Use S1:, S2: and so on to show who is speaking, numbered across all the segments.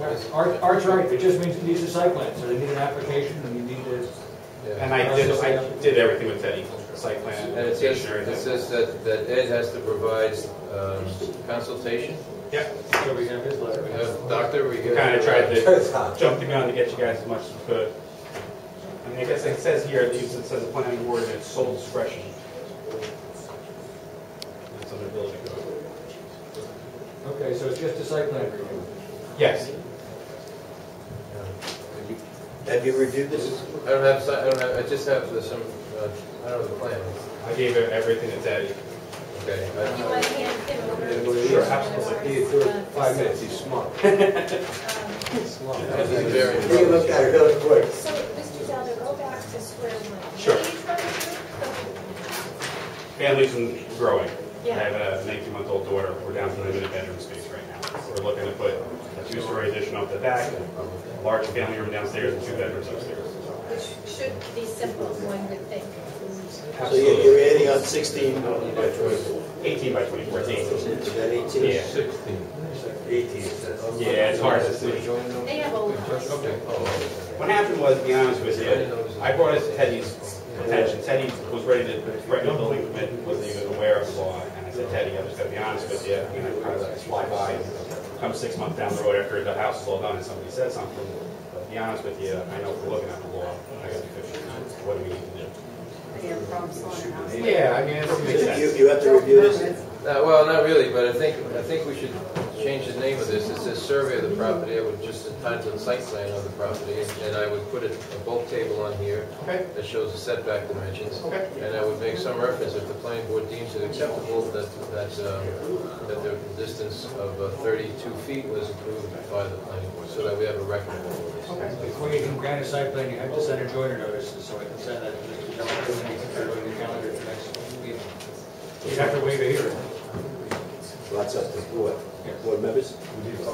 S1: Yes, Art, Art's right, it just means it needs a site plan, so they need an application, and you need to,
S2: And I did, I did everything with Teddy, site plan,
S3: And it says,
S2: application,
S3: it
S2: everything.
S3: says that, that Ed has to provide um, consultation.
S2: Yep,
S1: so we have his letter.
S3: We have doctor, we have.
S2: kind of tried to jump the gun to get you guys as much as we could. I mean, I guess it says here, it leaves- it says the planning board and its sole discretion. That's under building code.
S1: Okay, so it's just a site plan review.
S2: Yes,
S4: Have you reviewed this?
S3: I don't have, si- I don't have, I just have the- some, uh, I don't know the plan.
S2: I gave her everything to Teddy.
S3: Okay.
S5: Do you want
S3: I-
S5: to hand him over?
S4: Sure,
S5: absolutely.
S4: Five minutes, he's smart.
S3: This is very.
S4: He looked at it really quick.
S5: So, Mr. Zelda, go back to square one.
S2: Sure.
S5: What are you trying
S2: Families and growing. I
S5: Yeah.
S2: have a 19-month-old daughter, we're down to limited bedroom space right now. We're looking to put a two-story addition up the back, a large family room downstairs, and two bedrooms upstairs.
S5: to do? Which should be simple, one would think.
S4: So you're you're adding on 16 by 24.
S2: 18 by 24, it's 18.
S4: Is that 18?
S2: Yeah.
S3: Sixteen.
S4: 18.
S2: Yeah, it's hard to see.
S5: They have old ones.
S3: Okay. Oh,
S2: What happened was, to be honest with you, I brought it to Teddy's attention. Teddy was ready to threaten a building permit, wasn't even aware of the law. And I said, Teddy, I'm just gonna be honest with you, you know, kind of like fly by, and come six months down the road after the house is all done and somebody says something. But to be honest with you, I know if we're looking at the law, I gotta be fifty, what do we need to do? Yeah, I mean, it makes
S4: So You
S2: sense.
S4: you have to review this?
S3: Uh, Well, not really, but I think, I think we should change the name of this. It says survey of the property, I would just entitle it site plan of the property, and I would put a a bulk table on here
S2: Okay.
S3: that shows the setback dimensions.
S2: Okay.
S3: And I would make some reference, if the planning board deems it acceptable, that, that, um, that the distance of uh, 32 feet was approved by the planning board, so that we have a record of all of this.
S1: Before you can grant a site plan, you have to send a joiner notice, and so I can send that to Mr. Zelda, and he can put it on the calendar for next meeting. You have to wait a hearing.
S4: Lots up to the board. Board members?
S6: We can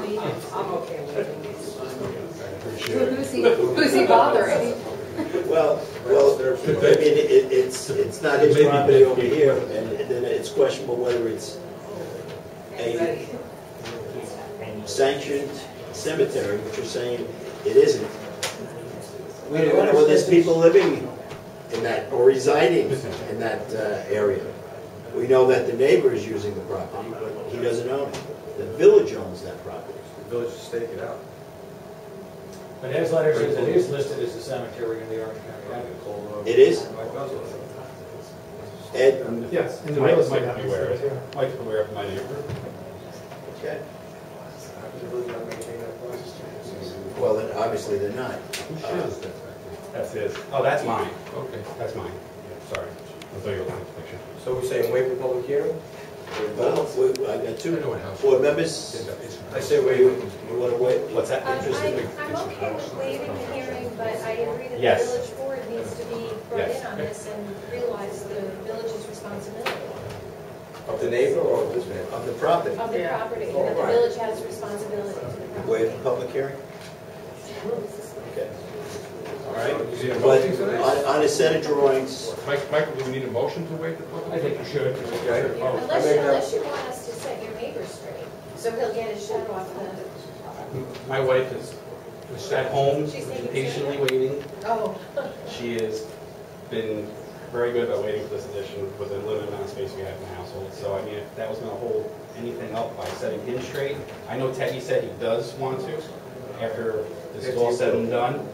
S6: leave. I'm okay with it. Who's he, who's he bothering?
S4: Well, well, I mean, it- it- it's, it's not his property over here, and then it's questionable whether it's a sanctioned cemetery, which you're saying it isn't. We don't know whether there's people living in that, or residing in that uh, area. We know that the neighbor is using the property, but he doesn't own it. The village owns that property.
S1: But his letter says it is listed as a cemetery in the Orange County Avenue.
S4: It is? Ed?
S2: Yes. Mike's Mike can be aware of it. Mike can be aware of my neighbor.
S4: Okay. Well, then obviously they're not.
S2: That's his. Oh, that's mine.
S3: Okay.
S2: That's mine. Yeah, Sorry. I thought you were looking at the picture.
S7: So we're saying wait for public hearing?
S4: Well, we- I got two
S3: I know what house.
S4: board members.
S7: I say wait, we want to wait.
S2: What's
S5: Um,
S2: that?
S5: I- I'm okay with waiving the hearing, but I agree that
S2: Yes.
S5: the village board needs to be brought
S2: Yes.
S5: in on this and realize the village's responsibility
S7: Of the neighbor or of this man?
S4: Of the property,
S5: of the
S6: Yeah.
S5: property, that the
S7: Alright.
S5: village has responsibility to the property.
S4: waive the public hearing? Okay.
S3: All right.
S8: You need a
S4: But
S8: motion for that?
S4: on, on a set of drawings,
S8: Mike, Michael, do we need a motion to waive the
S1: I
S8: public?
S1: think you should.
S7: Okay.
S1: Oh.
S5: Unless,
S7: I mean, uh,
S5: unless you want us to set your neighbor straight, so he'll get his shut off the,
S2: My wife is she's at home,
S5: She's taking
S2: patiently
S5: care
S2: waiting.
S5: oh,
S2: She has been very good about waiting for this addition with the limited amount of space we have in the household. So I mean, if that was gonna hold anything up by setting him straight, I know Teddy said he does want to, after this is all said and done,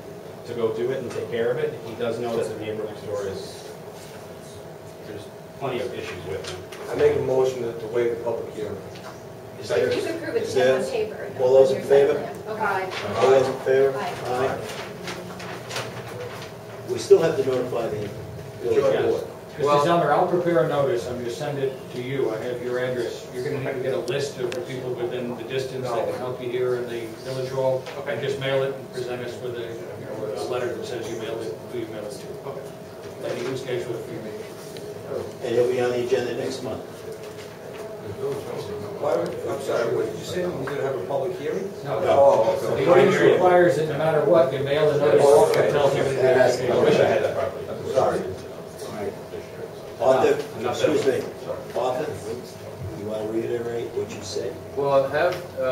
S2: to go do it and take care of it. He does know that the neighbor next door is, there's plenty of issues with him.
S7: I make a motion to to waive the public hearing.
S4: is
S5: you
S4: there,
S5: could prove it's
S4: Is
S5: him on
S4: that-
S5: paper.
S4: all those in
S5: Your site
S4: favor?
S5: plan. Okay.
S6: Aye.
S4: all those in favor?
S5: Aye.
S4: We still have to notify the village board.
S1: Mr. Zeller, I'll prepare a notice, I'm gonna send it to you, I have your address. You're gonna need to get a list of the people within the distance that can help you here in the village hall. And just mail it and present us with a, you know, with a letter that says you mailed it, who you mailed it to. And you can schedule it for your meeting.
S4: And it'll be on the agenda next month.
S7: Why, would- I'm sorry, what did you say? We're going to have a public hearing?
S1: No.
S7: Oh,
S1: The
S7: okay.
S1: ordinance requires that no matter what, you mail the notice
S7: Okay.
S1: that tells you.
S4: That has to be-
S2: I wish I had that property.
S4: Sorry. Arthur,
S2: Enough said.
S4: excuse me, Arthur, you want to reiterate what you said?
S3: Well, Well, have, uh,